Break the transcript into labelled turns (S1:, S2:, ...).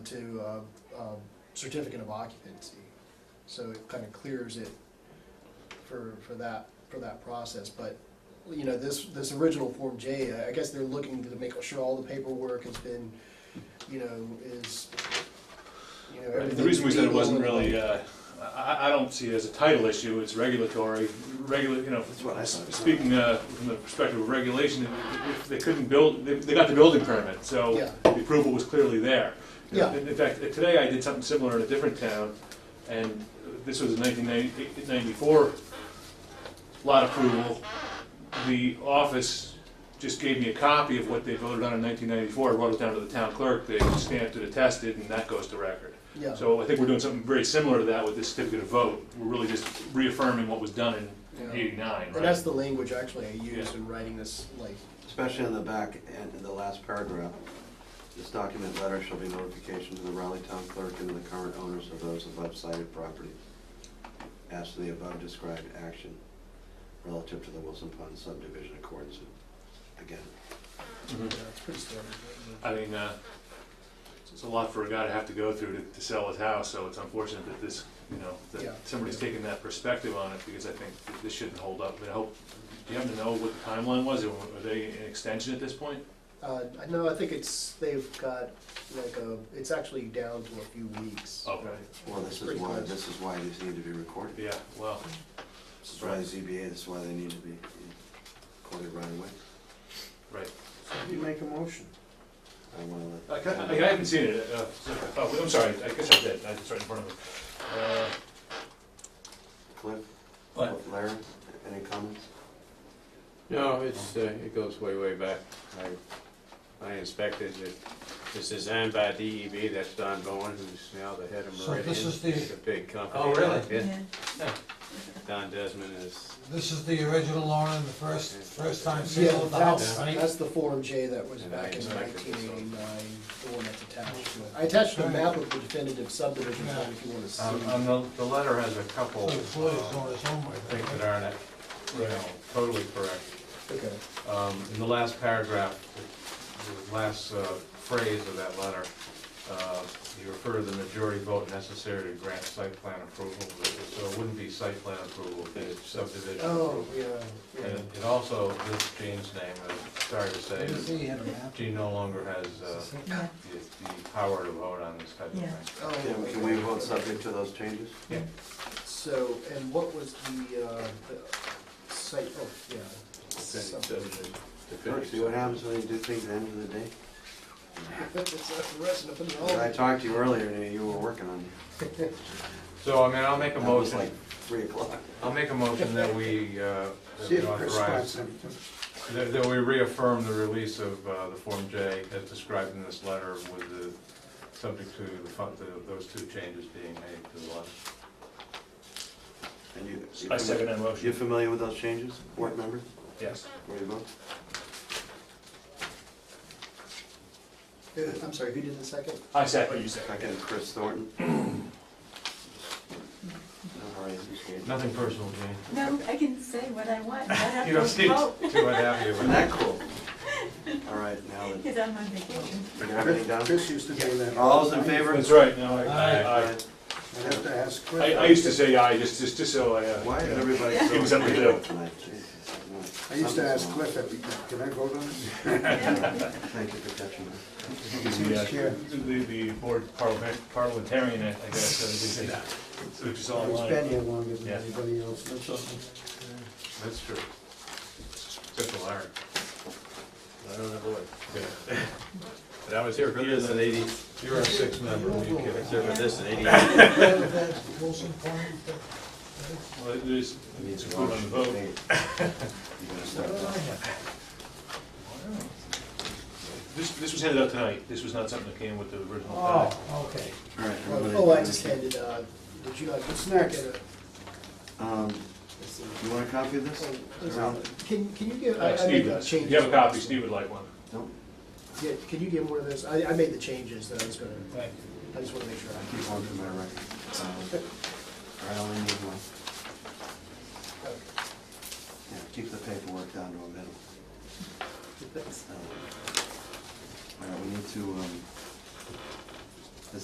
S1: to uh, um, certificate of occupancy. So it kind of clears it for, for that, for that process. But, you know, this, this original Form J, I guess they're looking to make sure all the paperwork has been, you know, is, you know,
S2: The reason we said it wasn't
S1: everything's
S2: really,
S1: legal
S2: uh, I- I, I don't see it as a title issue, it's regulatory, regula, you know,
S3: That's what I saw.
S2: speaking uh, from the perspective of regulation, if they couldn't build, they- they got the building permit, so
S1: Yeah.
S2: the approval was clearly there.
S1: Yeah.
S2: In in fact, today I did something similar in a different town, and this was a 1994 lot approval. The office just gave me a copy of what they voted on in 1994, I wrote it down to the town clerk, they stamped it, attested, and that goes to record.
S1: Yeah.
S2: So I think we're doing something very similar to that with this certificate of vote. We're really just reaffirming what was done in
S1: Yeah.
S2: eighty-nine,
S1: And that's
S2: right?
S1: the language actually I used in writing this, like,
S3: Especially in the back and in the last paragraph. This document letter shall be notification to the Raleigh Town Clerk and to the current owners of those above cited properties as to the above described action relative to the Wilson Pond subdivision accordance with, again.
S1: you know, it's pretty standard.
S2: Mm-hmm. I mean, uh, it's- it's a lot for a guy to have to go through to, to sell his house, so it's unfortunate that this, you know,
S1: Yeah.
S2: that somebody's taking that perspective on it, because I think that this shouldn't hold up. And I hope, do you happen to know what the timeline was, or were they in extension at this point?
S1: Uh, I know, I think it's, they've got like a, it's actually down to a few weeks.
S2: Okay.
S3: Well, this is
S1: Pretty
S3: why,
S1: close.
S3: this is why these need to be recorded.
S2: Yeah, well,
S3: This is why the ZBA, this is why they need to be recorded right away.
S2: right.
S4: You make a motion.
S3: I wanna
S2: I,
S3: let.
S2: ca- I I haven't seen it, uh, so- oh, I'm sorry, I guess I did, I just right in front of me. Uh,
S3: Cliff,
S2: But,
S3: Larry, any comments?
S5: No, it's, uh, it goes way, way back. I, I inspected it. It's designed by DEB, that's Don Bowen, who's now the head of
S4: So
S5: Meridian.
S4: this is the-
S5: It's a big company.
S4: Oh, really?
S5: Yeah,
S6: Yeah.
S5: Don Desmond is,
S4: This is the original owner and the first, first time
S1: Yeah,
S4: sale of the
S1: that's,
S4: house, right?
S1: that's the Form J that was
S5: And I
S1: back in
S5: expected
S1: nineteen
S5: this one.
S1: eighty-nine, the one that's attached to it. I attached a map of the definitive subdivision plan if you wanna see.
S7: Um, um, the, the letter has a
S4: So
S7: couple,
S4: the employee's
S7: uh,
S4: doing his homework.
S7: things that aren't, you know, totally correct.
S1: Okay,
S7: Um, in the last paragraph, the- the last, uh, phrase of that letter, uh, you refer to the majority vote necessary to grant site plan approval, but it- so it wouldn't be site plan approval, it's subdivision
S1: oh,
S7: approval.
S1: yeah, yeah.
S7: And it also, this Gene's name, I'm sorry to say,
S4: See, he had a
S7: that
S4: map.
S7: Gene no longer has, uh,
S6: Yeah.
S7: the, the power to vote on this type of
S6: Yeah.
S7: thing.
S1: Oh,
S3: Can can we vote subject to those changes?
S1: So, and what was the, uh, the site, oh, yeah. Subdivision.
S3: Sure, See what happens when you do things at the end of the day?
S1: It's a rest of it
S4: Oh.
S1: all.
S3: I talked to you earlier, and you were working on it.
S7: So, I mean, I'll make a
S3: That was
S7: motion.
S3: like three o'clock.
S7: I'll make a motion that we, uh, that we authorize, that that we reaffirm the release of uh, the Form J as described in this letter with the, subject to the fu- the- those two changes being made to the letter.
S3: And you-
S2: I second that
S3: You
S2: motion,
S3: familiar with those changes, board members?
S2: yes.
S3: Where you vote?
S1: Uh, I'm sorry, who did the second?
S2: I second. You second.
S3: Second, Chris Thornton. No hurry, it's okay.
S7: Nothing personal, Jane.
S6: No, I can say what I want, I have
S7: You don't
S6: to
S7: seem
S6: vote,
S7: too unhappy
S3: Isn't
S7: with it.
S3: that cool? All right, now, that-
S6: because I'm on vacation.
S3: you got everything done?
S4: Chris used to do that.
S3: All those in favor?
S2: That's right, no, I,
S4: Aye.
S2: I- I-
S4: I have to ask Chris.
S2: I, I used to say aye, just, just, just so I, uh,
S3: Why is everybody so...
S2: Give him something to do.
S3: agreeable tonight? Jesus,
S4: I used to ask Cliff, every time, can I vote on it?
S3: Thank you for catching that.
S2: the, uh, the, the board parliament- parliamentarian, I I guess, so they say that. So it's all
S4: He's
S2: online.
S4: been here longer than
S2: Oh, Yeah.
S4: anybody else, that's all.
S7: That's true. Except for Larry.
S5: I don't know what. But I was here for this in eighty,
S7: You're a six member, you
S5: I
S7: kidding?
S5: was here for this in eighty-eight.
S4: That's Wilson Point, that-
S2: Well, there's, it's put on the vote.
S3: Hey, You gotta start
S4: what did I
S3: that.
S4: have?
S2: This, this was handed out tonight, this was not something that came with the original. packet.
S4: Oh, okay.
S3: All right, everybody-
S1: Oh, I just handed, uh, did you not?
S4: What's next?
S1: Get a-
S3: Um,
S1: let's see.
S3: you want a copy of this?
S1: Oh, Can, can you give, I
S2: Uh,
S1: I
S2: Steve
S1: made the
S2: does, if
S1: changes.
S2: you have a copy, Steve would like one.
S3: No?
S1: Yeah, can you give one of those? I, I made the changes that I was gonna,
S2: Thank
S1: I just wanna make sure.
S3: I keep on to my record. Um, all right, I only need one.
S1: I-
S3: Yeah, keep the paperwork down to a minimum.
S1: okay.
S3: Um, All right, we need to, um,